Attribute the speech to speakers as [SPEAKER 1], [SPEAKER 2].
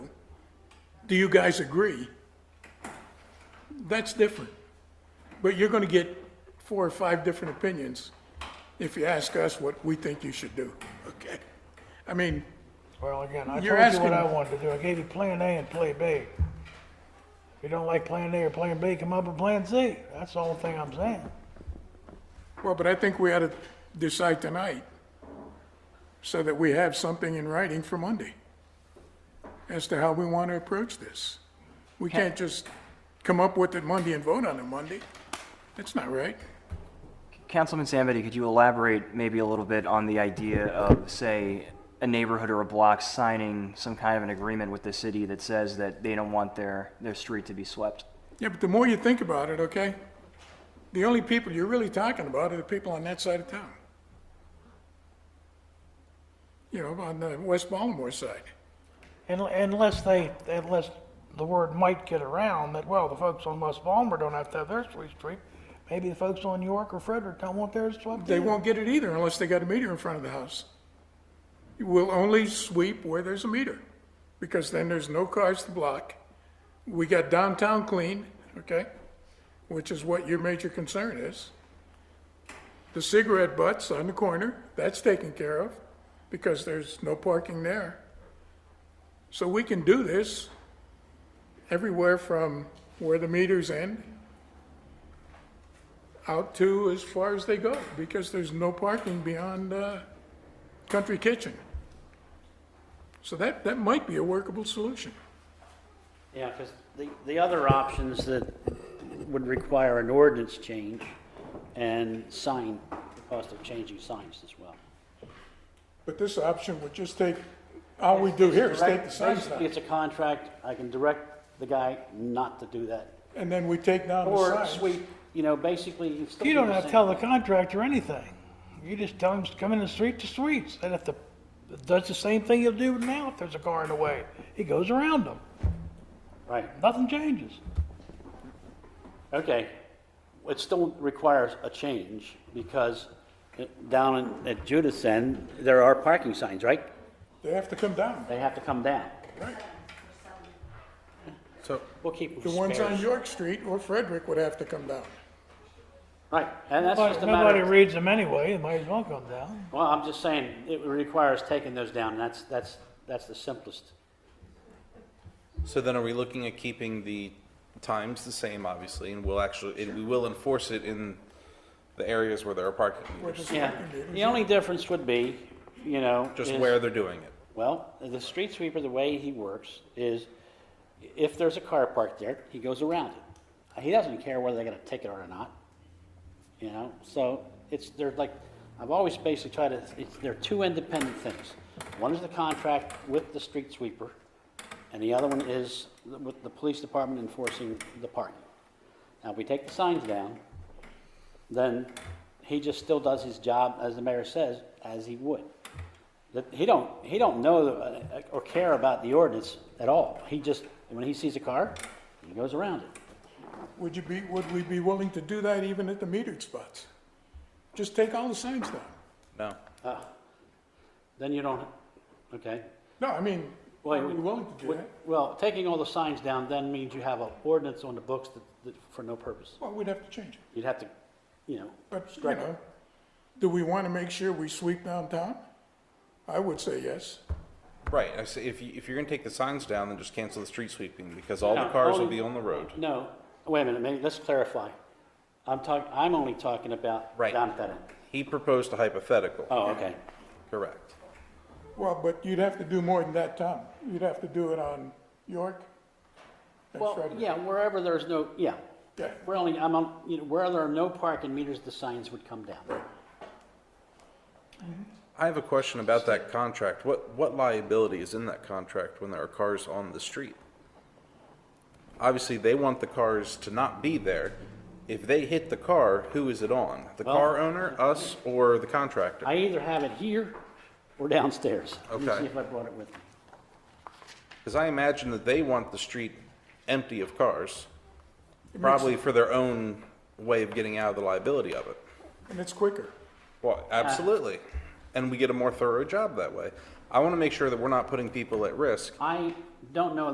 [SPEAKER 1] do you guys agree? That's different. But you're going to get four or five different opinions if you ask us what we think you should do, okay? I mean,
[SPEAKER 2] Well, again, I told you
[SPEAKER 1] You're
[SPEAKER 2] what
[SPEAKER 1] asking-
[SPEAKER 2] I wanted to do. I gave you plan A and plan B. If you don't like plan A or plan B, come up with plan C. That's the only thing I'm saying.
[SPEAKER 1] well, but I think we ought to decide tonight so that we have something in writing for Monday as to how we want to approach this. We can't just come up with it Monday and vote on it Monday. That's not right.
[SPEAKER 3] Councilman Samity, could you elaborate maybe a little bit on the idea of, say, a neighborhood or a block signing some kind of an agreement with the city that says that they don't want their, their street to be swept?
[SPEAKER 1] Yeah, but the more you think about it, okay, the only people you're really talking about are the people on that side of town. You know, on the West Baltimore side.
[SPEAKER 2] Un- Unless they, unless the word might get around that, well, the folks on West Balmer don't have to have their street swept. Maybe the folks on York or Frederick don't want theirs swept
[SPEAKER 1] They
[SPEAKER 2] either.
[SPEAKER 1] won't get it either unless they got a meter in front of the house. You will only sweep where there's a meter, because then there's no cars to block. We got downtown clean, okay, which is what your major concern is. The cigarette butts on the corner, that's taken care of, because there's no parking there. So we can do this everywhere from where the meters end out to as far as they go, because there's no parking beyond uh, Country Kitchen. So that, that might be a workable solution.
[SPEAKER 4] Yeah, because the, the other options that would require an ordinance change and sign, the cost of changing signs as well.
[SPEAKER 1] But this option would just take, all we do here is take the signs
[SPEAKER 4] Basically,
[SPEAKER 1] down,
[SPEAKER 4] It's a contract, I can direct the guy not to do that.
[SPEAKER 1] and then we take down
[SPEAKER 4] Or
[SPEAKER 1] the signs.
[SPEAKER 4] sweep, you know, basically. you still
[SPEAKER 2] You
[SPEAKER 4] do
[SPEAKER 2] don't
[SPEAKER 4] the
[SPEAKER 2] have to
[SPEAKER 4] same
[SPEAKER 2] tell the
[SPEAKER 4] thing.
[SPEAKER 2] contractor anything. You just tell him to come in the street to streets. They have to, does the same thing he'll do now if there's a car in the way. He goes around them.
[SPEAKER 4] Right,
[SPEAKER 2] Nothing changes.
[SPEAKER 4] okay. It still requires a change because it- down in- at Judas End, there are parking signs, right?
[SPEAKER 1] They have to come down,
[SPEAKER 4] They have to come down.
[SPEAKER 1] right?
[SPEAKER 4] We'll keep them
[SPEAKER 1] The ones on
[SPEAKER 4] spares.
[SPEAKER 1] York Street or Frederick would have to come down.
[SPEAKER 4] Right, and that's just
[SPEAKER 2] But
[SPEAKER 4] a matter
[SPEAKER 2] nobody
[SPEAKER 4] of.
[SPEAKER 2] reads them anyway, it might as well come down.
[SPEAKER 4] Well, I'm just saying, it requires taking those down, and that's, that's, that's the simplest.
[SPEAKER 5] So then are we looking at keeping the times the same, obviously, and we'll actually, and we will enforce it in the areas where there are parking meters,
[SPEAKER 4] Yeah, the only difference would be, you know.
[SPEAKER 5] just
[SPEAKER 4] is-
[SPEAKER 5] where they're doing it.
[SPEAKER 4] Well, the street sweeper, the way he works is, if there's a car parked there, he goes around it. He doesn't care whether they get a ticket or not, you know, so it's, they're like, I've always basically tried to, it's, they're two independent things. One is the contract with the street sweeper, and the other one is with the police department enforcing the parking. Now, if we take the signs down, then he just still does his job, as the mayor says, as he would. That he don't, he don't know uh, or care about the ordinance at all. He just, when he sees a car, he goes around it.
[SPEAKER 1] Would you be, would we be willing to do that even at the metered spots? Just take all the signs down?
[SPEAKER 5] No,
[SPEAKER 4] Then you don't, okay.
[SPEAKER 1] No, I mean,
[SPEAKER 4] Well,
[SPEAKER 1] are we willing to do that?
[SPEAKER 4] Well, taking all the signs down then means you have an ordinance on the books that, that, for no purpose.
[SPEAKER 1] Well, we'd have to change it.
[SPEAKER 4] You'd have to, you know,
[SPEAKER 1] But, you
[SPEAKER 4] Strike it.
[SPEAKER 1] know, do we want to make sure we sweep downtown? I would say yes.
[SPEAKER 5] right, I say, if you, if you're gonna take the signs down, then just cancel the street sweeping, because all the cars will be on the road.
[SPEAKER 4] No, wait a minute, maybe, let's clarify. I'm talking, I'm only talking about
[SPEAKER 5] Right.
[SPEAKER 4] down at that end.
[SPEAKER 5] He proposed a hypothetical,
[SPEAKER 4] Oh, okay.
[SPEAKER 5] correct.
[SPEAKER 1] Well, but you'd have to do more than that, Tom. You'd have to do it on York and
[SPEAKER 4] Well,
[SPEAKER 1] Frederick.
[SPEAKER 4] yeah, wherever there's no, yeah.
[SPEAKER 1] Yeah.
[SPEAKER 4] We're only, I'm, on- you know, where there are no parking meters, the signs would come down.
[SPEAKER 5] I have a question about that contract. What, what liability is in that contract when there are cars on the street? Obviously, they want the cars to not be there. If they hit the car, who is it on? The car owner, us, or the contractor?
[SPEAKER 4] I either have it here or downstairs. Let
[SPEAKER 5] Okay.
[SPEAKER 4] me see if I brought it with me.
[SPEAKER 5] Because I imagine that they want the street empty of cars, probably for their own way of getting out of the liability of it.
[SPEAKER 1] And it's quicker.
[SPEAKER 5] Well, absolutely. And we get a more thorough job that way. I want to make sure that we're not putting people at risk
[SPEAKER 4] I don't know